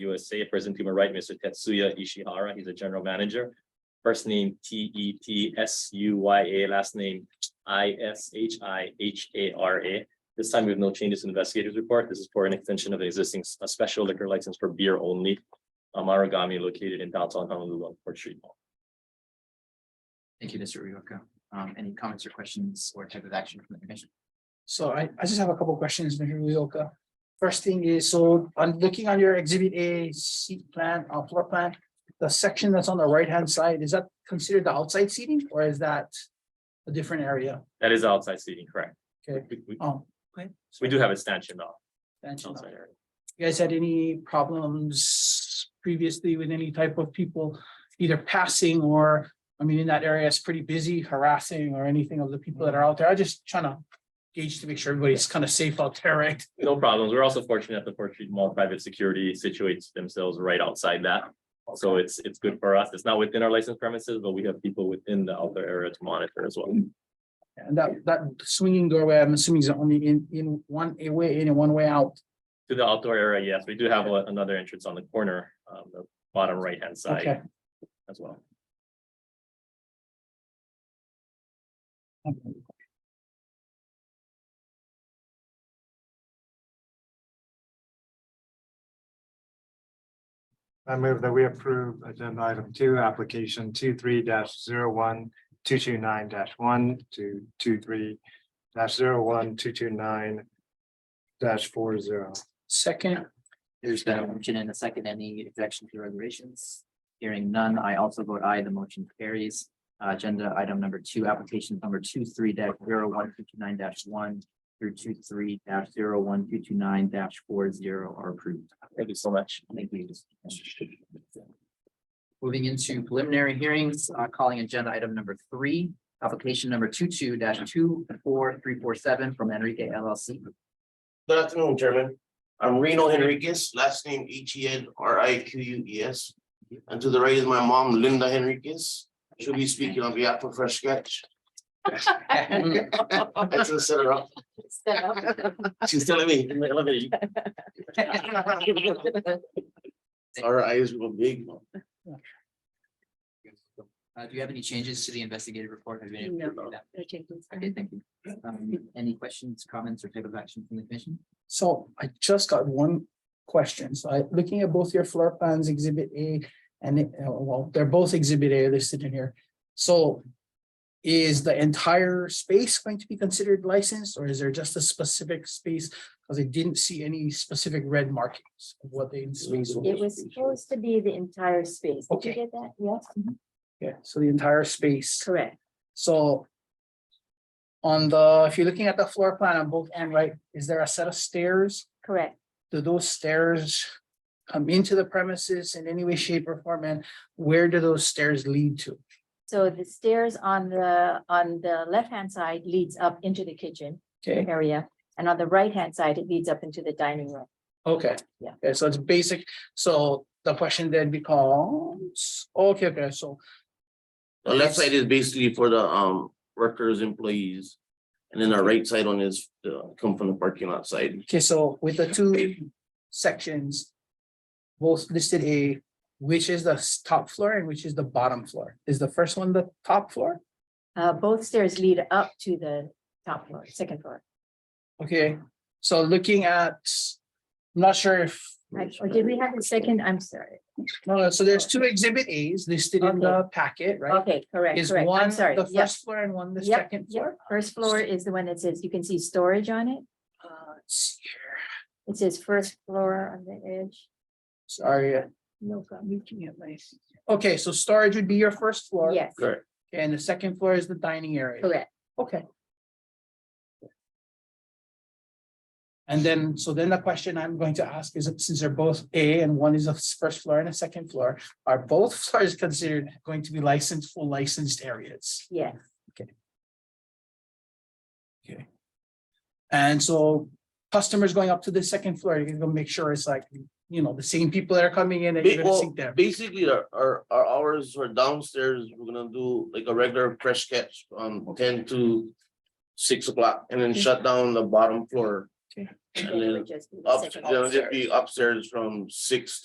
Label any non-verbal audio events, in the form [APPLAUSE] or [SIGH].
USA, present to my right, Mr. Tetsuya Ishihara, he's a general manager. First name T E T S U Y A, last name I S H I H A R A. This time we have no changes to the investigators report. This is for an extension of the existing s- a special liquor license for beer only. Amaragami located in downtown Honolulu on Port Street. Thank you, Mr. Rioka. Um, any comments or questions or type of action from the commission? So I, I just have a couple questions, Mr. Uzoka. First thing is, so I'm looking on your exhibit A seat plan, uh, floor plan. The section that's on the right-hand side, is that considered the outside seating or is that a different area? That is outside seating, correct? Okay. We- we- Oh, okay. We do have a stanchion though. Mention outside that. area. You guys had any problems previously with any type of people either passing or, I mean, in that area, it's pretty busy harassing or anything of the people that are out there. I just trying to gauge to make sure everybody's kind of safe out there, right? No problems. We're also fortunate that the Port Street Mall private security situates themselves right outside that. So it's, it's good for us. It's not within our licensed premises, but we have people within the outdoor area to monitor as well. And that, that swinging doorway, I'm assuming is only in, in one a way in and one way out. To the outdoor area, yes, we do have a- another entrance on the corner, um, the bottom right-hand Okay. side as well. I move that we approve agenda item two, application two, three dash zero one, two, two, nine dash one, two, two, three dash zero one, two, two, nine dash four zero. Second, There's been a motion and a second. Any objection to regulations? Hearing none, I also vote aye. The motion carries. Uh, Agenda item number two, application number two, three dash zero one two two nine dash one through two, three dash zero one two two nine dash four zero are approved. Thank you so much. Thank you. Moving into preliminary hearings, uh, calling agenda item number three, application number two-two two four three four seven from Enrique LLC. Good afternoon, Chairman. I'm Reno Henriquez, last name H E N R I Q U E S. And to the right is my mom, Linda Henriquez. She'll be speaking on behalf of Fresh Sketch. That's a setup. She's telling me. Our eyes were big. Uh, do you have any changes to the investigative report? Have you been able to do that? Okay. Okay, thank you. Um, any questions, comments, or type of action from the commission? so I just got one question. So I, looking at both your floor plans, exhibit A and, it- uh, well, they're both exhibit A listed in here. So is the entire space going to be considered licensed or is there just a specific space? Because I didn't see any specific red markings of what they. It was supposed to be the entire space. Did you Okay. Mm-hmm. get that? Yes, Yeah, so the entire space. correct. So. On the, if you're looking at the floor plan on both end, right, is there a set of stairs? Correct. Do those stairs come into the premises in any way, shape or form? And where do those stairs lead to? So the stairs on the, on the left-hand side leads up into the kitchen Okay, area. And on the right-hand side, it leads up into the dining room. okay. Yeah. Okay, so it's basic. So the question then becomes, okay, okay, so, The left side is basically for the um workers, employees. And then our right side on is uh, come from the parking lot side. okay, so with the two sections. Both listed A, which is the s- top floor and which is the bottom floor? Is the first one the top floor? Uh, both stairs lead up to the top floor, second floor. Okay, so looking at, I'm not sure if, Right, Or did we have the second? I'm sorry. no, no, so there's two exhibit As listed in Okay. the packet, right? Okay, correct, Is correct. one I'm sorry. the Yep, first floor and one the Yep, second floor? First floor is the one that says, you can see storage on it. Uh, let's see here. It says first floor on the edge. Sorry. uh, No, I'm looking at my. Okay, so storage would be your first floor. Yes, Correct. And the second floor is the dining area. correct. Okay. And then, so then the question I'm going to ask is, since they're both A and one is a s- first floor and a second floor, are both [LAUGHS] floors considered going to be licensed, full licensed areas? Yes, And so customers going up to the second floor, you can go make sure it's like, you know, the same people that are coming in and Ba- you're gonna well, see them. Basically, our, our, our hours are downstairs, we're gonna do like a regular fresh catch on ten to six o'clock and then shut down the bottom floor. Okay. And then it then would just be the up, second then it'd upstairs. be upstairs from six